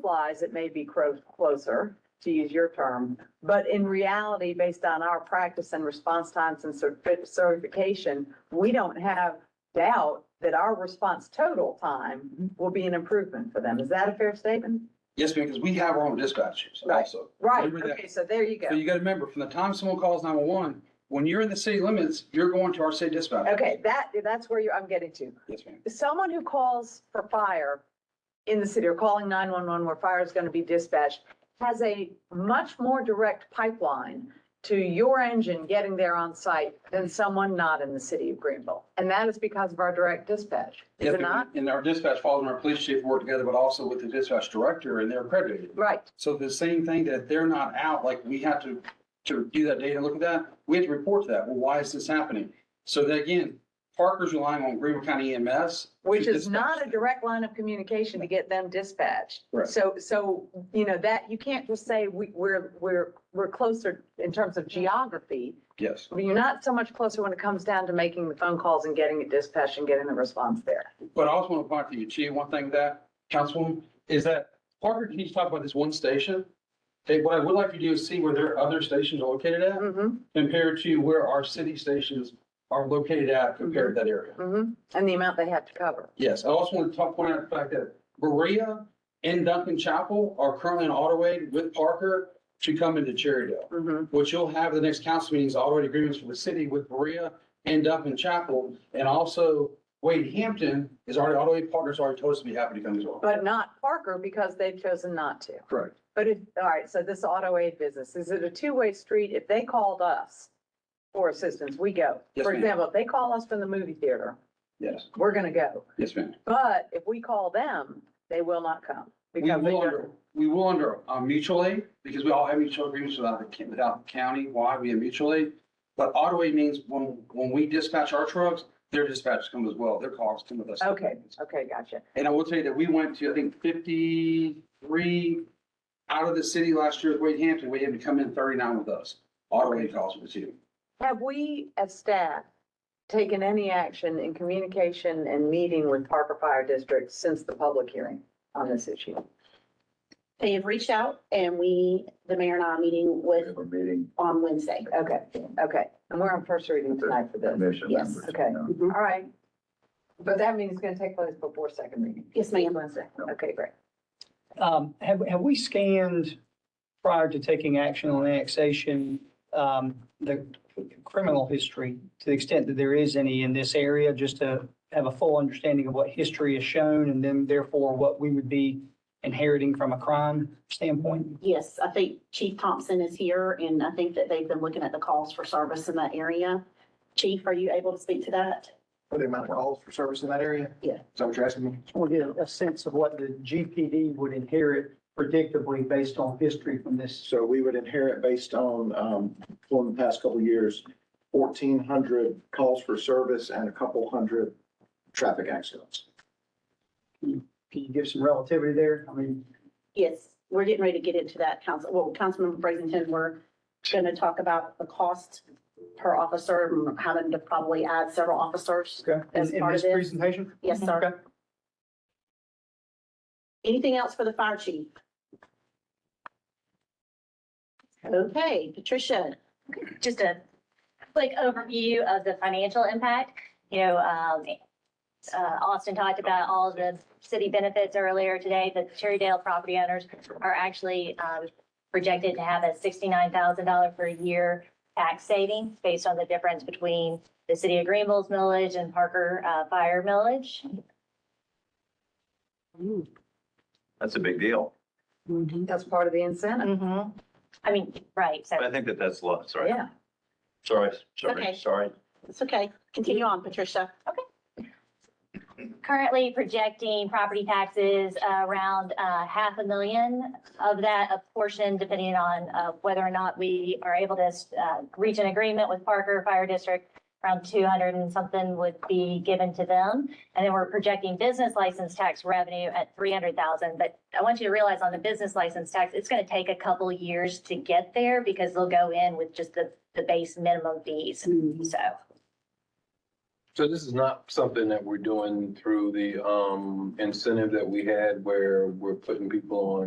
supplies, it may be cro- closer, to use your term. But in reality, based on our practice and response times and certi- certification, we don't have doubt that our response total Mm-hmm. time will be an improvement for them. Is that a fair statement? Yes, ma'am, because we have our own dispatchers Right. also. Right, Remember that. okay, so there you So go. you gotta remember, from the time someone calls nine-one-one, when you're in the city limits, you're going to our city dispatch. Okay, that, that's where you, I'm getting to. Yes, ma'am. someone who calls for fire in the city or calling 911 where fire is going to be dispatched has a much more direct pipeline to your engine getting there on site than someone not in the city of Greenville. And that is because of our direct dispatch, is Yes, it ma'am. not? And our dispatch falls and our police chief work together, but also with the dispatch director and they're accredited. Right, So the same thing that they're not out, like we have to, to do that data, look at that, we have to report to that. Well, why is this happening? So that again, Parker's relying on Greenville County EMS. which to is not a dispatch. direct line of communication to get them dispatched. Right. So, so, you know, that, you can't just say we, we're, we're, we're closer in terms of geography. Yes. I mean, You're not so much closer when it comes down to making the phone calls and getting it dispatched and getting the response there. But I also want to point to you, Chief, one thing that, Councilwoman, is that Parker, can you talk about this one station? Hey, what I would like you to do is see where their other stations are located at Mm-hmm, compared to where our city stations are located at compared to that area. mm-hmm. And the amount they have to cover. Yes, I also want to talk, point out the fact that Berea and Duncan Chapel are currently in AutoAid with Parker to come into Cherrydale. Mm-hmm. What you'll have the next council meeting is AutoAid agreements for the city with Berea and Duncan Chapel. And also Wade Hampton is already, AutoAid partners already told us to be happy to come as well. But not Parker because they've chosen not to. Correct. But it, all right, so this auto aid business, is it a two-way street? If they called us for assistance, we go. Yes, For ma'am. example, if they call us from the movie theater, Yes, we're gonna go. yes, ma'am. But if we call them, they will not come. We because they will don't- under, we will under uh, mutual aid, because we all have mutual agreements without, the ca- without the county, why we have mutual aid. But auto aid means when, when we dispatch our trucks, their dispatches come as well, their cars come with us. Okay, okay, gotcha. And I will tell you that we went to, I think, fifty-three out of the city last year with Wade Hampton, we had to come in thirty-nine with us. Auto aid calls with you. Have we, as staff, taken any action in communication and meeting with Parker Fire District since the public hearing on this issue? They have reached out and we, the mayor and I are meeting We with, have a meeting, on Wednesday. Okay, okay, and we're on first reading tonight for this. commission Yes, members. okay. No, Mm-hmm. All right. But that means it's gonna take place before second reading. Yes, ma'am. Wednesday, okay, great. Um, have, have we scanned prior to taking action on annexation, um, the criminal history to the extent that there is any in this area, just to have a full understanding of what history is shown and then therefore what we would be inheriting from a crime standpoint? Yes, I think Chief Thompson is here and I think that they've been looking at the calls for service in that area. Chief, are you able to speak to that? for the amount of calls for service in that area? Yeah. Is that what you're asking me? We'll get a sense of what the GPD would inherit predictably based on history from this. So we would inherit based on, um, from the past couple of years, fourteen hundred calls for service and a couple hundred traffic accidents. Can you give some relativity there? I mean, Yes, we're getting ready to get into that council, well, Councilmember Brazington, we're going to talk about the cost per officer and having to probably add several officers. okay, As in in part this of this? presentation? Yes, sir. Okay. Anything else for the fire chief? Okay, Patricia, just a quick overview of the financial impact. You know, um, uh, Austin talked about all the city benefits earlier today. The Cherrydale property owners are actually um, projected to have a $69,000 per year tax savings based on the difference between the city of Greenville's millage and Parker uh, Fire millage. That's a big deal. That's part of the incentive. I mean, right, so. But I think that that's a lot, sorry, Yeah. sorry, Okay. sorry, sorry. it's okay. Continue on, Patricia. currently projecting property taxes uh, around uh, half a million of that, a portion depending on uh, whether or not we are able to uh, reach an agreement with Parker Fire District, around 200 and something would be given to them. And then we're projecting business license tax revenue at 300,000. But I want you to realize on the business license tax, it's going to take a couple years to get there because they'll go in with just the, the base minimum fees. So. So this is not something that we're doing through the um incentive that we had where we're putting people on